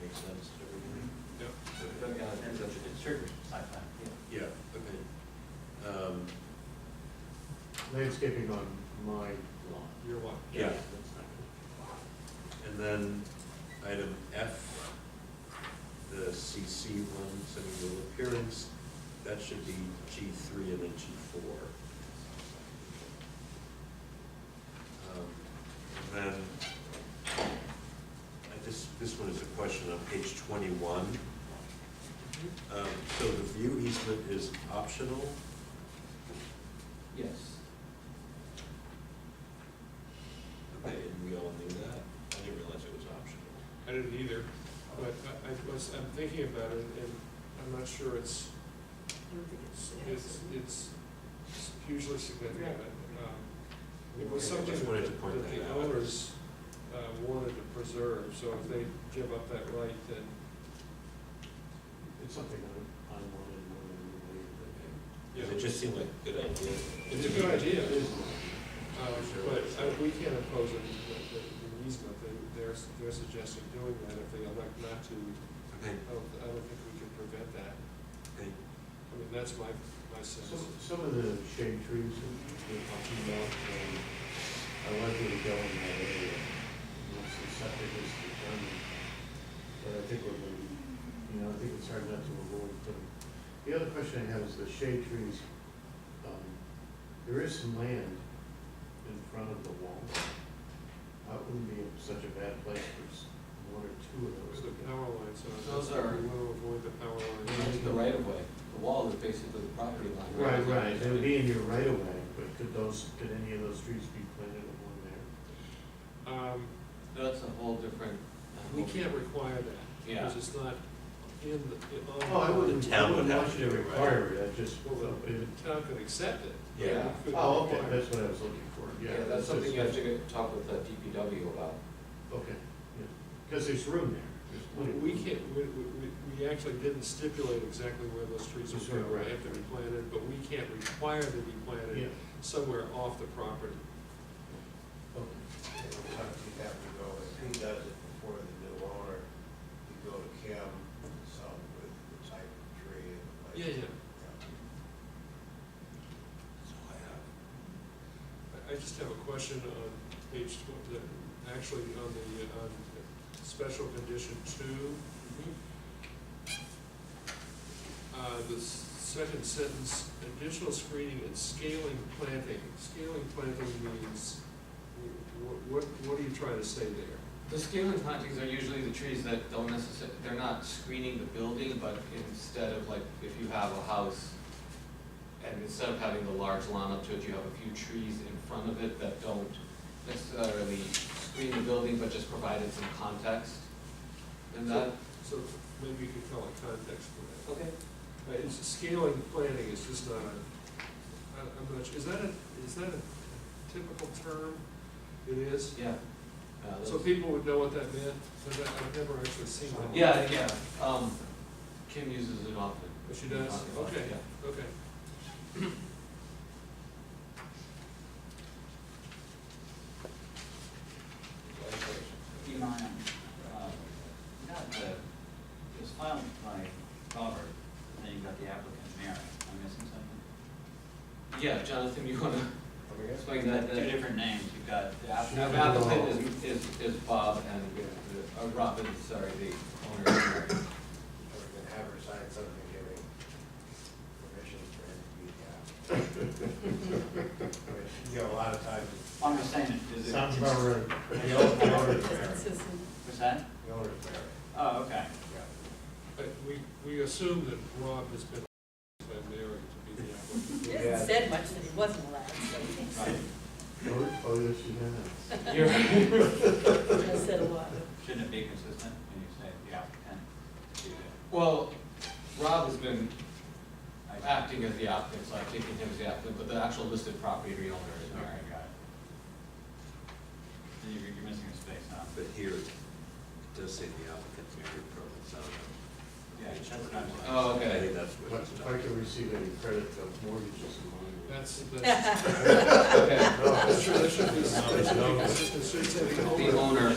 makes sense to everybody. Yep. So it doesn't matter, it's such a it's certainly site plan, yeah. Yeah, okay. Um, Landscaping on my lawn. Your one. Yeah, Yeah, that's not good. and then item F, the CC one, semi-rural appearance, that should be G three and then G four. Um, And then, I just, this one is a question on page twenty-one. Mm-hmm. Um, So the view easement is optional, Yes. okay, and we all knew that, I didn't realize it was optional. I didn't either, but I- I was, I'm thinking about it, and I'm not sure it's, I don't think it's. it's, it's hugely significant. Um, It was I something just wanted to point that that the out. owners uh, wanted to preserve, so if they give up that right, then It's something I, I wanted more than anybody. Yeah. It just seemed like a good idea. It's a good idea. It is. mine. Um, But uh, we can't impose an an easement, They- they're, they're suggesting doing that if they elect not to. Okay, I don't, I don't think we can prevent that. okay. I mean, that's my, my Some, sense. some of the shade trees that you're talking about, um, I like where you're going in that area. Once the septic is determined, but I think we're gonna, you know, I think it's hard not to avoid them. The other question I have is the shade trees. Um, There is some land in front of the wall. That wouldn't be such a bad place for s- one or two of Where's those. the power lines are? Those are- We want to avoid the power It's lines. the right of way, the wall is basically the property line. Right, right, they would be in your right of way, but could those, could any of those trees be planted along there? Um, That's a whole different. We can't require that, Yeah. because it's not in the, in. Oh, I wouldn't, The I town would wouldn't have want to you do to it, right? require it, I just, Well, the- the town could accept it. but Yeah. we couldn't oh, okay, require it. that's what I was looking for, yeah. Yeah, that's it's something just- you have to go talk with uh, the DPW about. Okay, yeah, because there's room there, there's plenty. of We room. can't, we, we, we- we actually didn't stipulate exactly where those trees That's are right, going, right. they have to be planted, but we can't require them to be Yeah, planted somewhere off the property. okay. Sometimes you have to go, if he does it before the new owner, you go to Kim, some with the type of tree and like. Yeah, yeah. That's all I I, I just have a question on page tw- the- actually on the, uh, on special condition two. Uh, the s- second sentence, additional screening and scaling planting. Scaling planting means, wh- wh- what, what are you trying to say there? The scaling plantings are usually the trees that don't necessarily, they're not screening the building, but instead of like, if you have a house, and instead of having the large lawn up to it, you have a few trees in front of it that don't necessarily screen the building, but just provided some context. And that, So maybe you could call it context for that. okay, Uh, it's scaling planting is just not a, I, I'm not, su- is that a, is that a typical term? It is? yeah. Uh, So that's- people would know what that meant, but that- I've never actually seen that. Yeah, yeah, um, Kim uses it often. But Oh, she does, okay, Yeah. okay. Do you mind, uh, not the, it was filed by Robert, but then you got the applicant Mary, am I missing something? Yeah, Jonathan, you wanna explain that? You've got two different names, you've got the Now, applicant. the applicant is, is, is Bob and, uh, Robin, sorry, the owner. Or you can have her sign something giving permission for him to be the applicant. I mean, You know, a lot of times, I'm just saying, it- is it? Sounds about right. the owner- the owner's That's married, his- What's that? the owner's married, Oh, okay. yeah. But we, we assume that Rob has been, been married to be the applicant. He hasn't said much that he wasn't allowed, so he Oh, oh, yes, you have. You're, has said a lot. Shouldn't it be consistent when you say the applicant? to the- well, Rob has been I- acting as the applicant, so I'm taking him as the applicant, but the actual listed property owner is All Mary. right, got it. You- You're missing a space, huh? But here, it does say the applicant's married, probably, so. Yeah, that's what I'm saying. Oh, I okay. think that's what But it's if about. I could receive any credit of mortgages in mine. That's, that's, Okay. that's true, that should be, that should be consistent, should say the The owner. owner